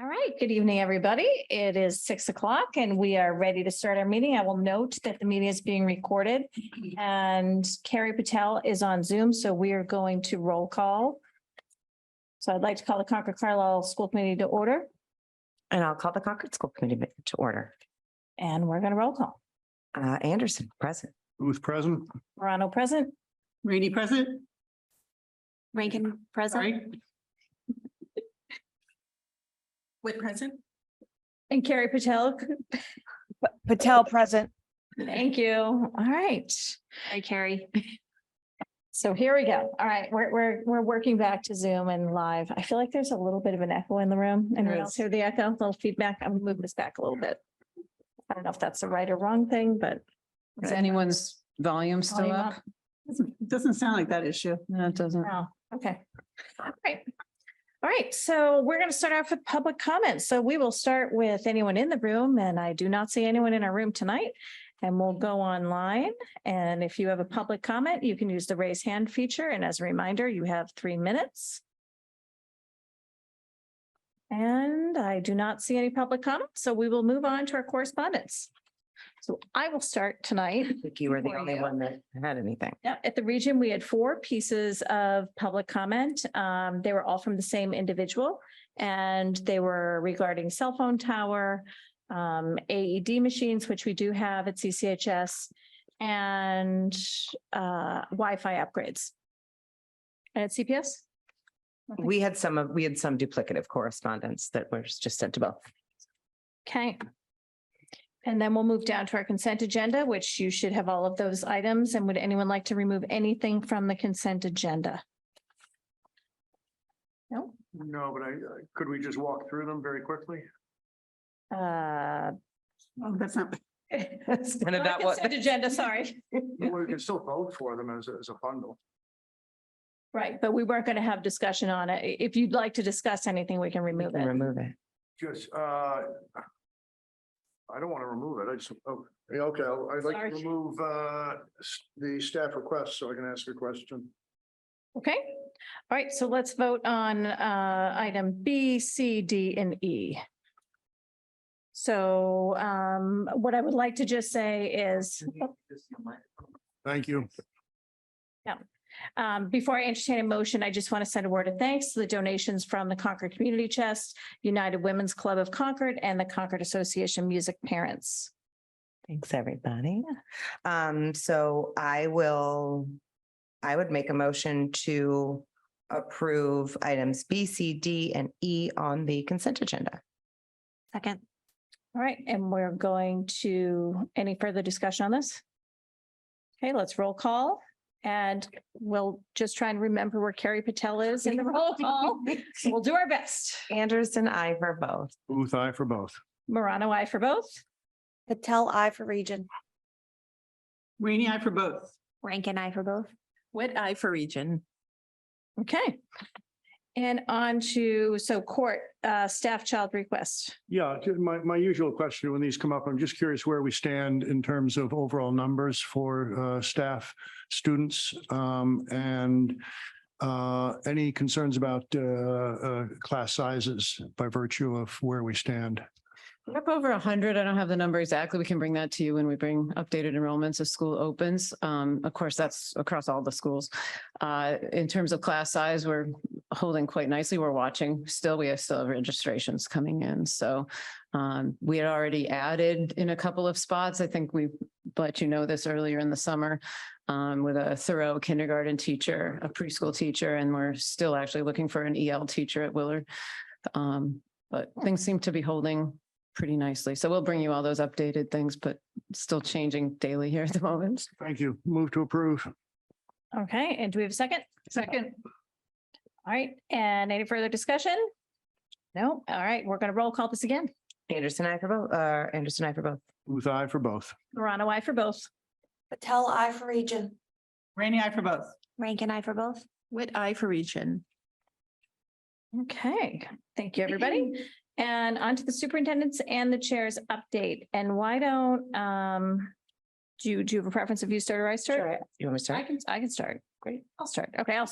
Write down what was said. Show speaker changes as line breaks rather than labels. All right, good evening, everybody. It is six o'clock and we are ready to start our meeting. I will note that the meeting is being recorded. And Carrie Patel is on Zoom, so we are going to roll call. So I'd like to call the Concord Carlisle School Committee to order
And I'll call the Concord School Committee mi- to order.
and we're going to roll call.
Uh, Anderson, present.
Who's present?
Morano present,
Rainy present,
Rankin
sorry.
present.
With present?
and Carrie Patel.
Patel present.
Thank you. All right.
Hi, Carrie.
So here we go. All right, we're, we're, we're working back to Zoom and live. I feel like there's a little bit of an echo in the room. Anyone
There
else
is.
hear the echo? A little feedback? I'm gonna move this back a little bit. I don't know if that's the right or wrong thing, but.
Is anyone's volume still
Volume
up?
up.
Doesn't doesn't sound like that issue.
No, it doesn't.
Oh, okay. All right. All right, so we're gonna start off with public comments. So we will start with anyone in the room, and I do not see anyone in our room tonight. And we'll go online, and if you have a public comment, you can use the raise hand feature, and as a reminder, you have three minutes. And I do not see any public comments, so we will move on to our correspondence. So I will start tonight
I think you were the
Before
only
you.
one that had anything.
yeah, at the region, we had four pieces of public comment. Um, they were all from the same individual. And they were regarding cell phone tower, um, AED machines, which we do have at CCHS. And uh, Wi-Fi upgrades. And at CPS?
We had some of, we had some duplicative correspondence that was just sent to both.
Okay. And then we'll move down to our consent agenda, which you should have all of those items. And would anyone like to remove anything from the consent agenda? No?
No, but I, I- could we just walk through them very quickly?
Uh,
Oh, that's not,
That's kind of
not
that what.
consent Agenda, sorry.
Well, We can still vote for them as, a- as a bundle.
Right, but we weren't going to have discussion on it. I- If you'd like to discuss anything, we can
We
remove
can
it.
Remove it.
Just, uh, I don't want to remove it. I just, oh, yeah, okay, I'll- I'd like
Sorry.
to remove, uh, s- the staff request so I can ask a question.
Okay. All right, so let's vote on uh, item B, C, D, and E. So um, what I would like to just say is,
Thank you.
Um, before I entertain a motion, I just want to send a word of thanks to the donations from the Concord Community Chest, United Women's Club of Concord, and the Concord Association of Music Parents.
Thanks, everybody. Um, so I will, I would make a motion to approve items B, C, D, and E on the consent agenda.
Second.
All right, and we're going to, any further discussion on this? Okay, let's roll call, and we'll just try and remember where Carrie Patel is in the roll call. We'll do our best.
Anderson, I for both.
Booth, I for both.
Morano, I for both.
Patel, I for region.
rainy eye for both.
Rankin, I for both.
Wit eye for region. Okay. And on to, so court, uh, staff child request.
Yeah, ju- my, my usual question when these come up, I'm just curious where we stand in terms of overall numbers for uh, staff, students, um, and uh, any concerns about uh, uh, class sizes by virtue of where we stand?
We're Up over a hundred. I don't have the number exactly. We can bring that to you when we bring updated enrollments as school opens. Um, of course, that's across all the schools. Uh, in terms of class size, we're holding quite nicely. We're watching. Still, we have still have registrations coming in. So um, we had already added in a couple of spots. I think we let you know this earlier in the summer um, with a thorough kindergarten teacher, a preschool teacher, and we're still actually looking for an EL teacher at Willard. Um, but things seem to be holding pretty nicely. So we'll bring you all those updated things, but still changing daily here at the moment.
Thank you. Move to approve.
Okay, and do we have a second? Second. All right, and any further discussion? No, all right, we're gonna roll call this again.
Anderson, I for both, uh, Anderson, I for both.
Booth, I for both.
Morano, I for both.
Patel, I for region.
Rainy eye for both.
Rankin, I for both.
With eye for region.
Okay, thank you, everybody. And on to the superintendent's and the chair's update. And why don't, um, do you, do you have a preference if you start or I start?
You want me to start?
I can, I can start. Great. I'll start. Okay, I'll